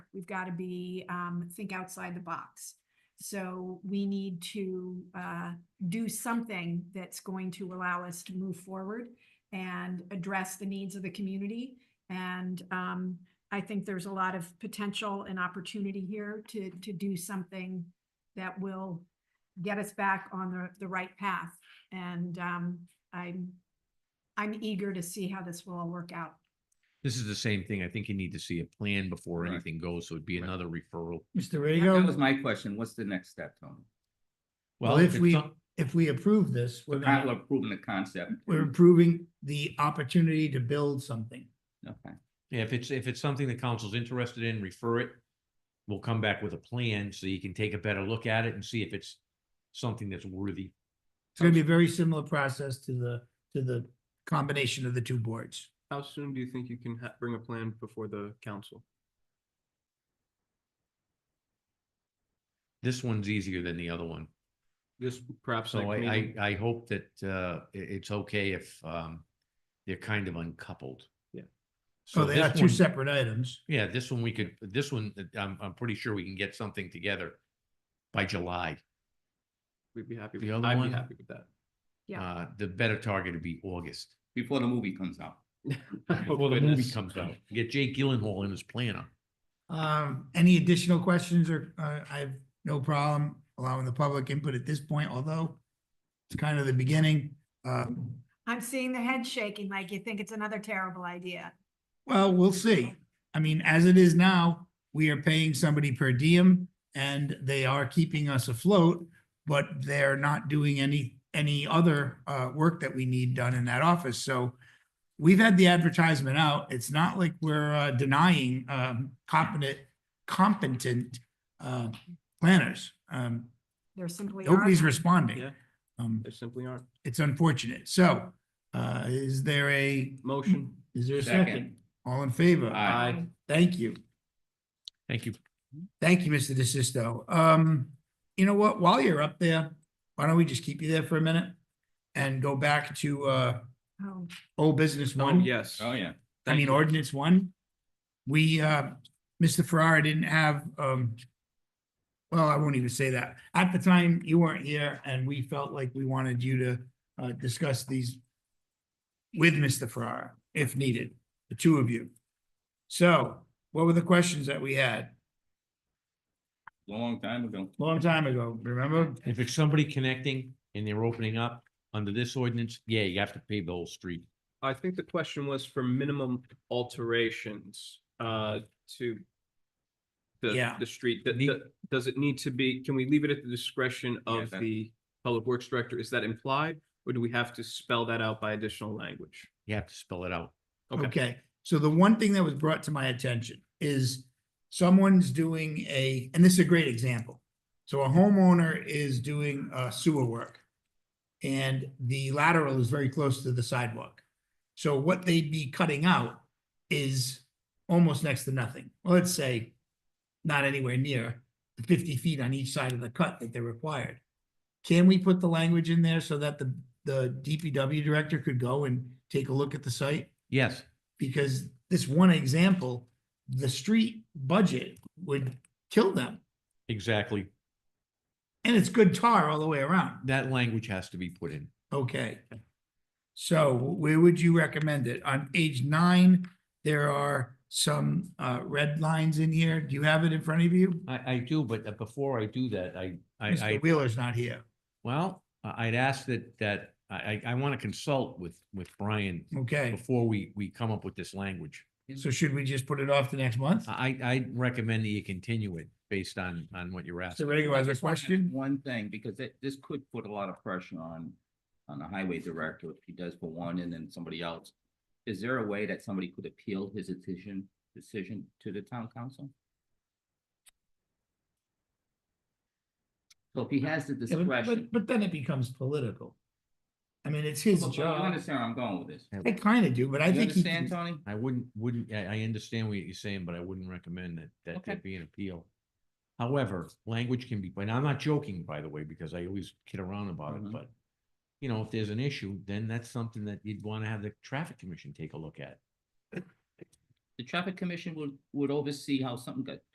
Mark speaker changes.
Speaker 1: We've got to be, um, think outside the box. So we need to, uh, do something that's going to allow us to move forward and address the needs of the community. And, um, I think there's a lot of potential and opportunity here to, to do something that will get us back on the, the right path. And, um, I'm, I'm eager to see how this will all work out.
Speaker 2: This is the same thing. I think you need to see a plan before
Speaker 3: Right.
Speaker 2: anything goes, so it'd be
Speaker 3: Right.
Speaker 2: another referral.
Speaker 4: Mr.
Speaker 3: That was
Speaker 4: Rego,
Speaker 3: my question. What's the next step, Tony?
Speaker 4: well, if
Speaker 2: it's
Speaker 4: we,
Speaker 2: some-
Speaker 4: if we approve this,
Speaker 3: We're
Speaker 4: we're, gonna-
Speaker 3: kind of approving the concept.
Speaker 4: we're improving the opportunity to build something.
Speaker 3: Okay,
Speaker 2: Yeah, if it's, if it's something the council's interested in, refer it. We'll come back with a plan so you can take a better look at it and see if it's something that's worthy.
Speaker 4: It's gonna be a very similar process to the, to the combination of the two boards.
Speaker 5: How soon do you think you can ha- bring a plan before the council?
Speaker 2: This one's easier than the other one.
Speaker 5: This perhaps
Speaker 2: So
Speaker 5: like
Speaker 2: I,
Speaker 5: meeting-
Speaker 2: I, I hope that, uh, i- it's okay if, um, they're kind of uncoupled.
Speaker 5: Yeah.
Speaker 2: So
Speaker 4: So Oh, they are
Speaker 2: this
Speaker 4: two
Speaker 2: one,
Speaker 4: separate items.
Speaker 2: yeah, this one we could, this one, uh, I'm, I'm pretty sure we can get something together by July.
Speaker 5: we'd be happy.
Speaker 2: the
Speaker 5: with-
Speaker 2: other
Speaker 5: I'd
Speaker 2: one-
Speaker 5: be happy with that.
Speaker 1: Yeah.
Speaker 2: Uh, the better target would be August.
Speaker 3: before the movie comes out.
Speaker 5: Oh,
Speaker 2: Before the movie
Speaker 5: goodness.
Speaker 2: comes out, get Jake Gyllenhaal in as planner.
Speaker 4: Um, any additional questions or, uh, I have no problem allowing the public input at this point, although it's kind of the beginning. Uh,
Speaker 1: I'm seeing the head shaking like you think it's another terrible idea.
Speaker 4: well, we'll see. I mean, as it is now, we are paying somebody per diem and they are keeping us afloat, but they're not doing any, any other, uh, work that we need done in that office. So we've had the advertisement out. It's not like we're, uh, denying, um, competent, competent, uh, planners. Um,
Speaker 1: There simply are.
Speaker 4: nobody's responding.
Speaker 5: Yeah.
Speaker 4: Um,
Speaker 5: There simply aren't.
Speaker 4: it's unfortunate. So, uh, is there a,
Speaker 5: Motion.
Speaker 4: is there a second?
Speaker 3: Second.
Speaker 4: All in favor?
Speaker 3: Aye.
Speaker 4: Thank you.
Speaker 2: Thank you.
Speaker 4: Thank you, Mr. DeSisto. Um, you know what, while you're up there, why don't we just keep you there for a minute? And go back to, uh,
Speaker 1: Oh,
Speaker 4: old business
Speaker 5: Oh,
Speaker 4: one.
Speaker 5: yes.
Speaker 3: Oh, yeah.
Speaker 4: I
Speaker 5: Thank
Speaker 4: mean,
Speaker 5: you.
Speaker 4: ordinance one. We, uh, Mr. Ferrara didn't have, um, well, I won't even say that. At the time, you weren't here and we felt like we wanted you to, uh, discuss these with Mr. Ferrara, if needed, the two of you. So what were the questions that we had?
Speaker 3: Long time ago.
Speaker 4: Long time ago, remember?
Speaker 2: If it's somebody connecting and they're opening up under this ordinance, yeah, you have to pave the whole street.
Speaker 5: I think the question was for minimum alterations uh to the
Speaker 4: Yeah.
Speaker 5: the street. Th-
Speaker 2: Ne-
Speaker 5: th- does it need to be, can we leave it at the discretion
Speaker 3: Yeah,
Speaker 5: of
Speaker 3: that-
Speaker 5: the public works director? Is that implied? Or do we have to spell that out by additional language?
Speaker 2: You have to spell it out.
Speaker 4: Okay, so the one thing that was brought to my attention is someone's doing a, and this is a great example. So a homeowner is doing uh, sewer work. And the lateral is very close to the sidewalk. So what they'd be cutting out is almost next to nothing. Well, Let's say not anywhere near the fifty feet on each side of the cut that they're required. Can we put the language in there so that the, the DPW director could go and take a look at the site?
Speaker 2: Yes,
Speaker 4: because this one example, the street budget would kill them.
Speaker 2: exactly.
Speaker 4: And it's good tar all the way around.
Speaker 2: That language has to be put in.
Speaker 4: Okay. So where would you recommend it? On page nine, there are some uh red lines in here. Do you have it in front of you?
Speaker 2: I, I do, but uh, before I do that, I, I, I,
Speaker 4: Mr. Wheeler's not here.
Speaker 2: well, I- I'd ask that, that, I, I, I want to consult with, with Brian
Speaker 4: Okay,
Speaker 2: before we, we come up with this language.
Speaker 4: so should we just put it off to next month?
Speaker 2: I, I recommend that you continue it based on, on what you're
Speaker 4: Mr.
Speaker 2: asking.
Speaker 4: Rego has a
Speaker 3: Just wanna ask
Speaker 4: question.
Speaker 3: One thing, because it, this could put a lot of pressure on, on the highway director if he does for one and then somebody else. Is there a way that somebody could appeal his decision, decision to the town council? So if he has the
Speaker 4: Yeah, But,
Speaker 3: discretion,
Speaker 4: but- but then it becomes political. I mean, it's his
Speaker 3: Well, you
Speaker 4: job.
Speaker 3: understand where I'm going with this?
Speaker 4: I kind of do, but I
Speaker 3: You
Speaker 4: think he.
Speaker 3: understand,
Speaker 4: can-
Speaker 3: Tony?
Speaker 2: I wouldn't, wouldn't, I, I understand what you're saying, but I wouldn't recommend that, that
Speaker 3: Okay.
Speaker 2: that be an appeal. However, language can be, and I'm not joking, by the way, because I always kid around about it,
Speaker 3: Mhm.
Speaker 2: but you know, if there's an issue, then that's something that you'd want to have the traffic commission take a look at.
Speaker 3: The traffic commission would, would oversee how something got